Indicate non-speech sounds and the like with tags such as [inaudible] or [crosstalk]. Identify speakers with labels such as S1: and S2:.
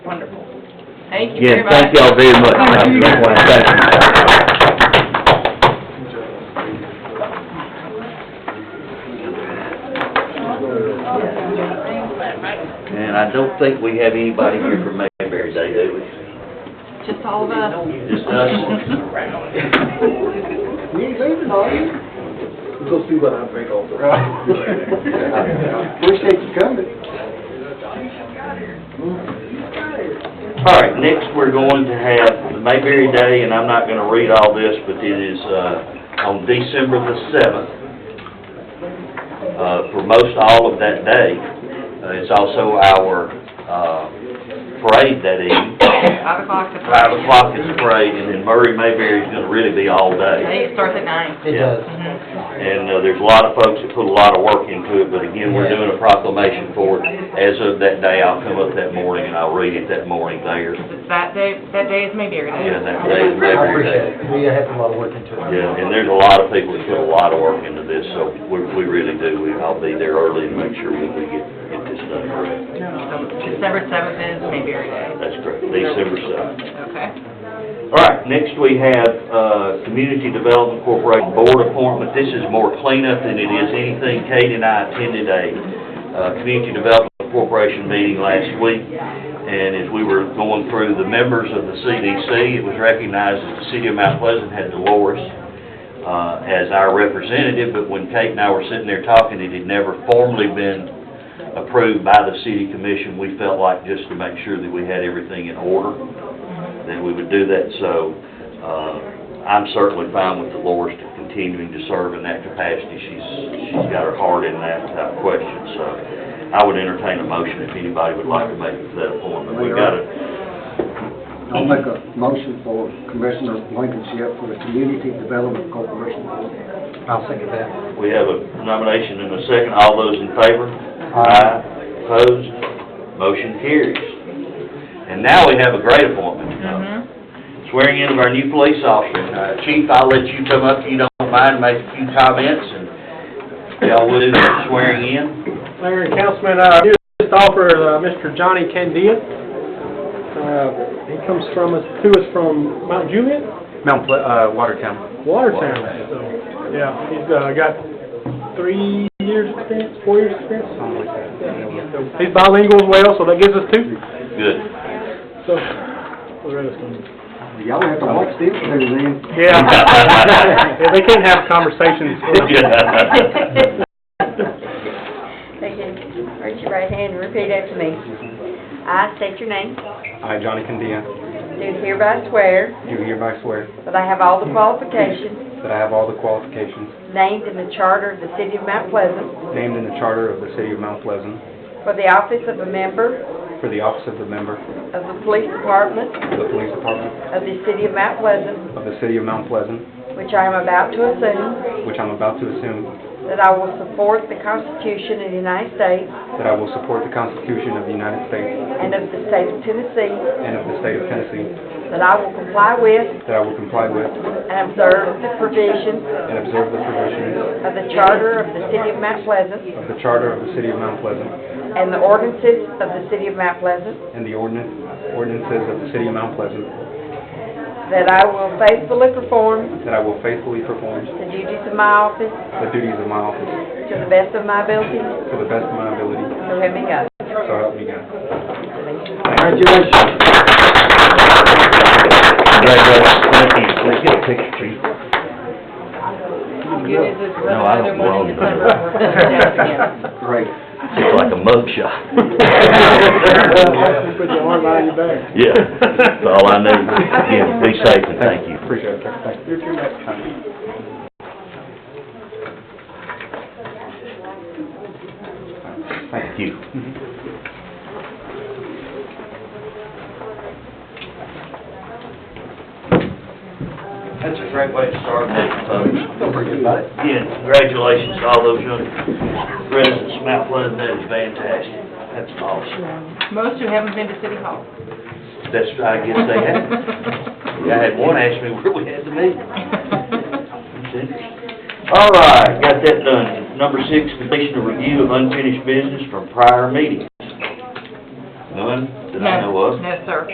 S1: Thank you very
S2: Yes,
S1: much.
S2: thank y'all very much.
S1: Thank you.
S2: And I don't think we have anybody here for Mayberry Day, do we?
S1: Just all of us.
S2: Just us?
S3: You ain't leaving, are you? Go see what I bring over. [laughs] Appreciate you coming.
S2: [laughs] All right, next we're going to have the Mayberry Day, and I'm not gonna read all this, but it is, uh, on December the seventh. Uh, for most all of that day. Uh, it's also our, uh, parade that evening.
S1: Five o'clock to
S2: Five o'clock is the parade, and then Murray Mayberry's gonna really be all day.
S1: It starts at nine.
S2: It does.
S1: Mhm.
S2: And, uh, there's a lot of folks that put a lot of work into it, but again, we're doing a proclamation for it. As of that day, I'll come up that morning and I'll read it that morning there.
S1: It's That day, that day is maybe every day.
S2: Yeah, that day is
S3: I
S2: Mayberry Day.
S3: appreciate it. We have a lot of work into it.
S2: Yeah, and there's a lot of people that put a lot of work into this, so we, we really do. We, I'll be there early to make sure we we get, get this done correct.
S1: So December seventh is Mayberry Day.
S2: That's correct, December seventh.
S1: Okay.
S2: All right, next we have, uh, Community Development Corporation Board appointment. This is more cleanup than it is anything. Kate and I attended a, uh, Community Development Corporation meeting last week. And as we were going through the members of the CDC, it was recognized that the city of Mount Pleasant had Dolores, uh, as our representative. But when Kate and I were sitting there talking, it had never formally been approved by the city commission. We felt like just to make sure that we had everything in order then we would do that. So uh, I'm certainly fine with Dolores continuing to serve in that capacity. She's, she's got her heart in that type of question, so I would entertain a motion if anybody would like to make that appointment. We've got a,
S3: I'll make a motion for Commissioner Blankenship for the Community Development Corporation. I'll second that.
S2: we have a nomination and a second. All those in favor? Aye. Opposed? Motion carries. And now we have a great appointment.
S1: Mhm.
S2: swearing in of our new police officer. Uh, Chief, I'll let you come up, if you don't mind, make a few comments, and y'all will do the swearing in.
S4: Mayor and Councilman, uh, I just offer, uh, Mr. Johnny Candia. Uh, he comes from us, to us from Mount Juliet,
S5: Mount, Ple- uh, Watertown.
S4: Watertown, so, yeah, he's, uh, got three years experience, four years experience.
S5: something like that.
S4: So He's bilingual as well, so that gives us two,
S2: Good.
S4: so. Loretta's coming.
S3: Y'all have to watch this thing then.
S5: [laughs]
S4: Yeah. Yeah, they can't have conversations.
S6: Thank you. Raise your right hand and repeat after me. I state your name,
S5: I, Johnny Candia,
S6: do hereby swear
S5: do hereby swear
S6: that I have all the qualifications
S5: that I have all the qualifications
S6: named in the charter of the City of Mount Pleasant
S5: named in the charter of the city of Mount Pleasant
S6: for the office of a member
S5: for the office of the member
S6: of the Police Department
S5: of the police department
S6: of the City of Mount Pleasant,
S5: of the city of Mount Pleasant,
S6: which I am about to assume,
S5: which I'm about to assume,
S6: that I will support the Constitution of the United States
S5: that I will support the Constitution of the United States
S6: and of the State of Tennessee,
S5: and of the state of Tennessee,
S6: that I will comply with
S5: that I will comply with
S6: and observe the provisions
S5: and observe the provisions
S6: of the charter of the City of Mount Pleasant
S5: of the charter of the city of Mount Pleasant
S6: and the ordinances of the City of Mount Pleasant,
S5: and the ordinance ordinances of the city of Mount Pleasant,
S6: That I will faithfully perform
S5: that I will faithfully perform
S6: the duties of my office
S5: the duties of my office
S6: to the best of my ability,
S5: to the best of my ability,
S6: so help me God.
S5: so help me God.
S3: Congratulations.
S2: Thank you. Let's get a picture, Chief.
S1: Good news is we're
S2: No, I don't
S1: another one in December.
S2: belong
S1: We're going to do it again.
S5: [laughs]
S3: Great.
S2: It's like a mug shot.
S3: [laughs]
S4: Yeah, Put your arm behind your back.
S2: Yeah, that's all I need. Again, be safe and thank you.
S5: Appreciate it, sir. Thank you.
S4: You're too much.
S2: Thank you. That's a great way to start, folks.
S3: Don't forget about it.
S2: Again, congratulations to all those young residents of Mount Pleasant, that is fantastic, that's awesome.
S1: Most who haven't been to City Hall.
S2: That's, I guess they had,
S3: [laughs]
S1: [laughs]
S2: I had one ask me where we had the meeting. That's interesting. All right, got that done. Number six, completion of review of unfinished business from prior meetings. None that I know of.
S1: No, sir.